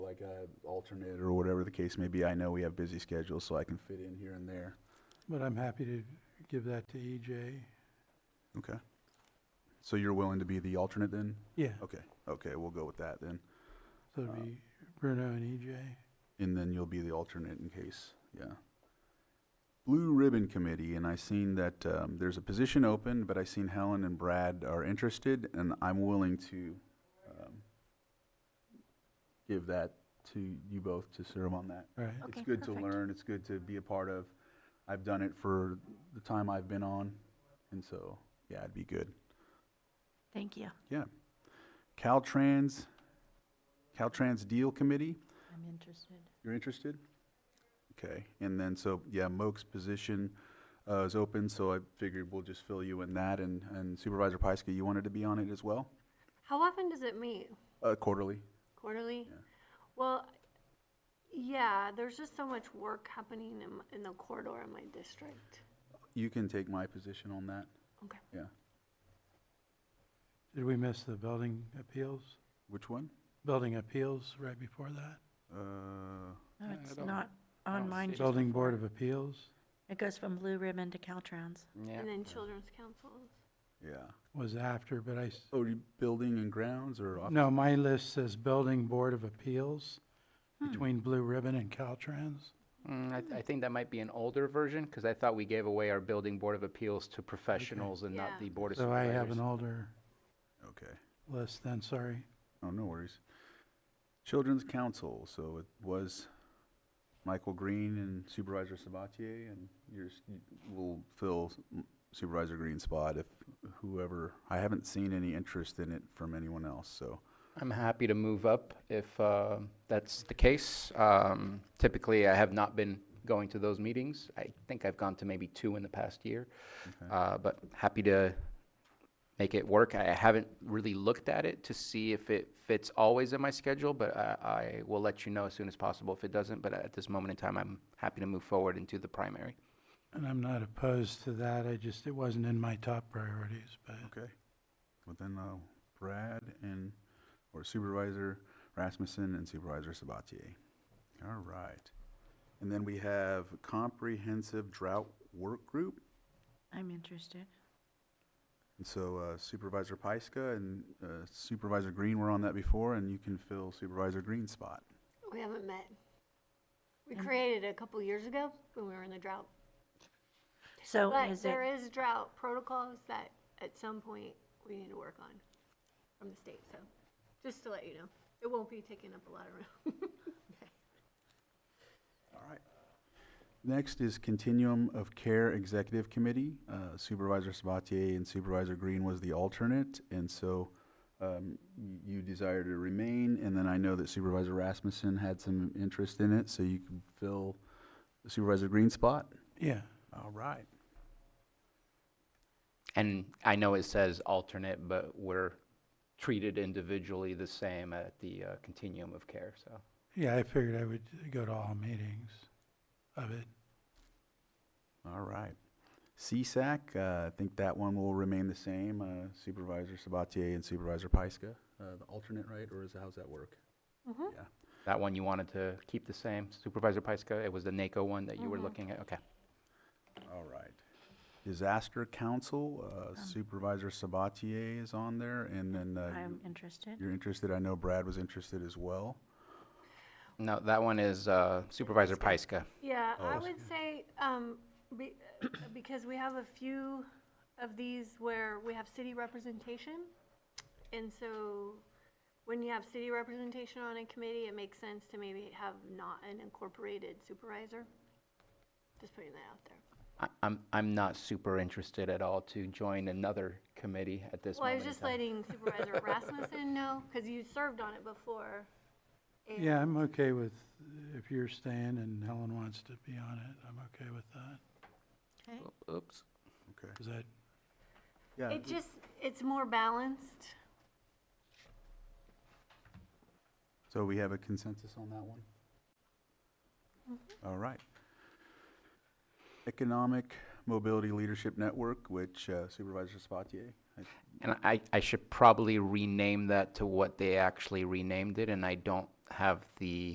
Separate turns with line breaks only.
alternate or whatever the case may be. I know we have busy schedules, so I can fit in here and there.
But I'm happy to give that to E EJ.
Okay. So you're willing to be the alternate then?
Yeah,
Okay, okay, we'll go with that then.
so
uh,
it'd be Bruno and E EJ.
And then you'll be the alternate in case, yeah. Blue Ribbon Committee, and I seen that, um, there's a position open, but I seen Helen and Brad are interested, and I'm willing to, um, give that to you both to serve on that.
Right,
It's
Okay,
good to
perfect.
learn, it's good to be a part of. I've done it for the time I've been on, and so, yeah, it'd be good.
Thank you.
Yeah. Caltrans, Caltrans Deal Committee,
I'm interested.
you're interested? Okay, and then, so, yeah, Moak's position uh, is open, so I figured we'll just fill you in that, and and Supervisor Pyska, you wanted to be on it as well?
How often does it meet?
Uh, Quarterly?
Quarterly?
Yeah.
Well, yeah, there's just so much work happening in, m- in the corridor in my district.
You can take my position on that,
Okay.
yeah.
did we miss the building appeals?
Which one?
Building appeals right before that?
Uh,
No,
Yeah, I
it's
don't-
not
I
on
don't
mine.
see it.
Building Board of Appeals?
It goes from Blue Ribbon to Caltrans.
Yeah.
And then children's councils.
Yeah.
was after, but I, s-
Oh, you- building and grounds or? office?
no, my list says Building Board of Appeals
Hmm.
between Blue Ribbon and Caltrans.
Mm, I, I think that might be an older version, because I thought we gave away our building board of appeals to professionals and
Yeah.
not the board of
So I
supervisors.
have an older
Okay.
list then, sorry.
Oh, no worries. Children's Council, so it was Michael Green and Supervisor Sabatier, and yours you will fill Supervisor Green's spot if whoever, I haven't seen any interest in it from anyone else, so.
I'm happy to move up if uh, that's the case. Um, Typically, I have not been going to those meetings. I think I've gone to maybe two in the past year,
okay.
uh, but happy to make it work. I I haven't really looked at it to see if it fits always in my schedule, but I, I will let you know as soon as possible if it doesn't. But at this moment in time, I'm happy to move forward into the primary.
And I'm not opposed to that, I just, it wasn't in my top priorities, but
Okay. Well, then uh, Brad and, or Supervisor Rasmussen and Supervisor Sabatier. All right. And then we have Comprehensive Drought Work Group.
I'm interested.
And so uh, Supervisor Pyska and uh, Supervisor Green were on that before, and you can fill Supervisor Green's spot.
We haven't met. We
And-
created it a couple years ago when we were in the drought.
So
But
is
there
it,
Oh, is drought protocols that at some point we need to work on from the state, so just to let you know. It won't be taking up a lot of room.
All right. Next is Continuum of Care Executive Committee. Uh, Supervisor Sabatier and Supervisor Green was the alternate, and so um, y- you desire to remain, and then I know that Supervisor Rasmussen had some interest in it, so you can fill Supervisor Green's spot.
yeah.
All right.
And I know it says alternate, but we're treated individually the same at the uh, continuum of care, so.
Yeah, I figured I would go to all meetings of it.
All right. CSAC, uh, I think that one will remain the same, uh, Supervisor Sabatier and Supervisor Pyska, uh, the alternate, right? Or is, how's that work?
Mhm.
Yeah.
That one you wanted to keep the same, Supervisor Pyska, it was the NACO one that you
Mm-hmm.
were looking at, okay.
All right. Disaster Council, uh, Supervisor Sabatier is on there, and then, uh,
I'm
you-
interested.
you're interested, I know Brad was interested as well.
No, that one is uh, Supervisor Pyska.
Yeah, I
Oh.
would say, um, be, because we have a few of these where we have city representation. And so when you have city representation on a committee, it makes sense to maybe have not an incorporated supervisor. Just putting that out there.
I- I'm, I'm not super interested at all to join another committee at this
Well, I was
moment in
just
time.
letting Supervisor Rasmussen know, because you served on it before. and-
Yeah, I'm okay with, if you're staying and Helen wants to be on it, I'm okay with that.
Okay.
Oops.
Okay.
Is that,
Yeah,
It just, it's more balanced.
so we have a consensus on that one? All right. Economic Mobility Leadership Network, which uh, Supervisor Sabatier, I
And I, I should probably rename that to what they actually renamed it, and I don't have the